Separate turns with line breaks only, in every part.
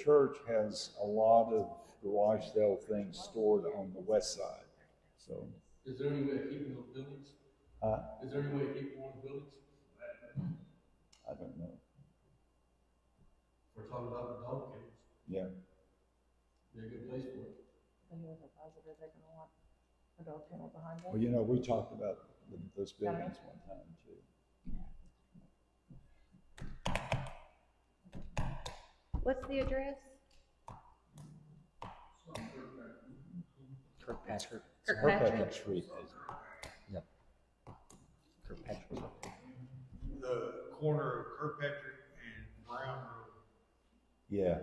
church has a lot of garage sale things stored on the west side, so.
Is there any way of keeping those buildings?
Huh?
Is there any way of keeping those buildings?
I don't know,
We're talking about the dog kennels,
yeah.
they're a good place for it.
They were the positive, they're gonna want a dog kennel behind
Well,
them.
you know, we talked about th- those buildings one time too.
What's the address?
Kirkpatrick.
Kirkpatrick.
Kirkpatrick Street is,
Yep. Kirkpatrick.
the corner of Kirkpatrick and Brown Road.
yeah.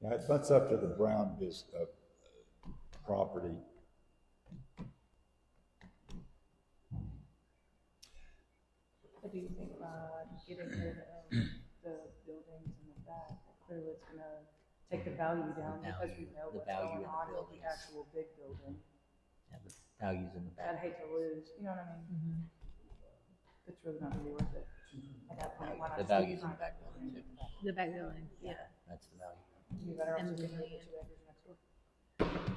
Yeah, it butts up to the Brown bus, uh, property.
What do you think about getting rid of the buildings in the back? Clearly it's gonna take the value down because we
value-
know
Mm-hmm. the
what's
value
going
of the
on with the
buildings.
actual big building.
Yeah, the values in the
I'd
back.
hate to lose, you know what I mean?
Mm-hmm.
It's really not really worth it. At that point, why not?
Mm-hmm. The
just
values in the
keep
back building too.
The back building, yeah.
That's the value.
it? You'd be better off
And
just
the
getting rid of the
land.
two acres next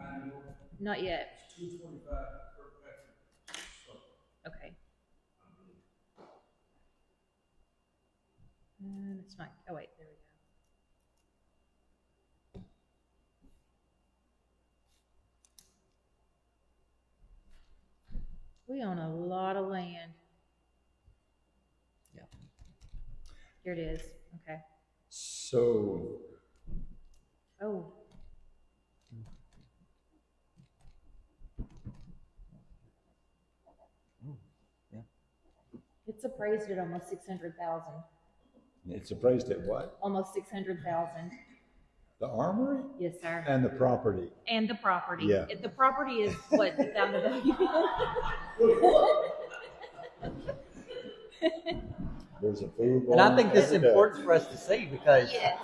Oh.
door.
Not yet.
Two twenty-five Kirkpatrick.
Okay. Um, it's not, oh wait, there we go. We own a lot of land.
Yeah.
Here it is, okay.
So,
Oh,
Mm.
it's appraised at almost six hundred thousand,
it's appraised at what?
almost six hundred thousand.
The armory
Yes, sir.
and the property.
And the property.
Yeah.
If The property is what the sound of the.
There's a food
And I
barn
think this is
and a-
important for us to see because
Yes.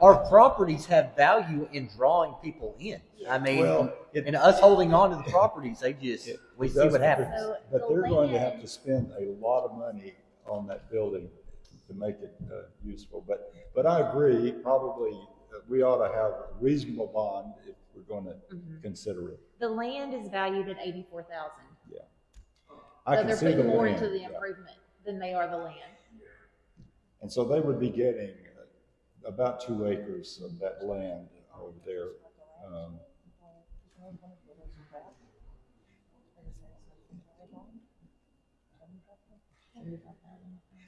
our properties have value in drawing people in. I mean,
Well, it-
and us holding on to the properties, they just,
It-
we
it
see
does,
what
but
happens.
they're-
So
But
the
they're going to have
land-
to spend a lot of money on that building to make it uh, useful. But, but I agree, probably, uh, we ought to have a reasonable bond if we're going to
Mhm.
consider it.
The land is valued at eighty-four thousand.
I can
they're
see the
putting more into
land,
the
yeah.
improvement than they are the land.
And so they would be getting uh, about two acres of that land over there. Um,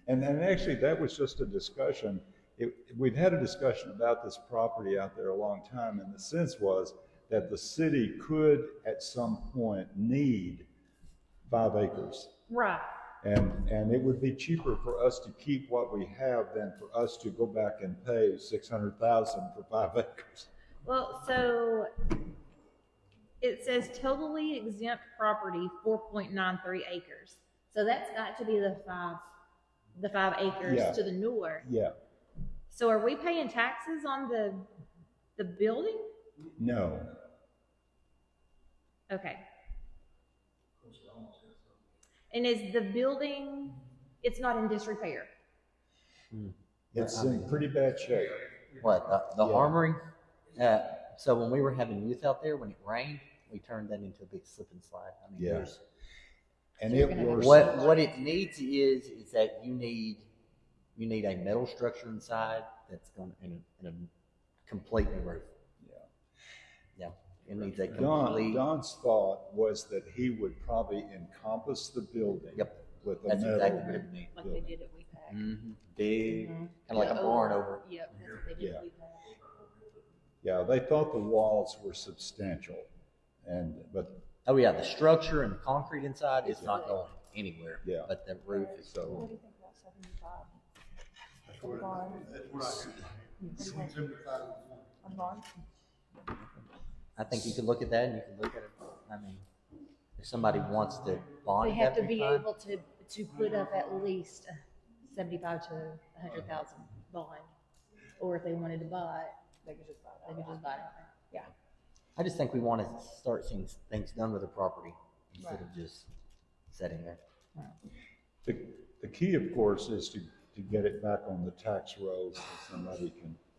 And then actually, that was just a discussion. It, we've had a discussion about this property out there a long time, and the sense was that the city could at some point need five acres.
Right.
And, and it would be cheaper for us to keep what we have than for us to go back and pay six hundred thousand for five acres.
Well, so it says totally exempt property, four point nine three acres. So that's got to be the five, the five
Yeah.
acres to the north.
Yeah,
So are we paying taxes on the, the building?
no,
Okay. And is the building, it's not in disrepair?
it's in pretty bad shape.
What, the, the
Yeah.
armory? Uh, so when we were having youth out there, when it rained, we turned that into a big slip and slide. I mean,
Yeah.
there's,
And it worsened.
what, what it needs is, is that you need, you need a metal structure inside that's going, to and a, and a complete new roof.
Yeah.
Yeah, it needs a
Don,
complete,
Don's thought was that he would probably encompass the building.
Yep.
With a
that's exactly what
metal.
it needs.
Like they did at WEPAC?
Mm-hmm. Big,
Mhm.
kind of like a
Yeah,
barn over.
Yep, that's what they did at WEPAC.
Yeah, they thought the walls were substantial and, but,
Oh yeah, the structure and the concrete inside is not going anywhere.
Yeah.
But the roof is
What
so,
do you think about seventy-five?
That's what, I- that's what I could, between seventy-five and one.
On bond?
I think you can look at that and you can look at it. I mean, if somebody wants to bond,
They have to
that
be
fine.
able to, to put up at least seventy-five to a hundred thousand bond. Or if they wanted to buy it,
They could just buy
they
that.
could just buy it.
I just think we want to start seeing things done with the property
Right.
instead of just sitting there.
the, the key, of course, is to, to get it back on the tax rolls so somebody can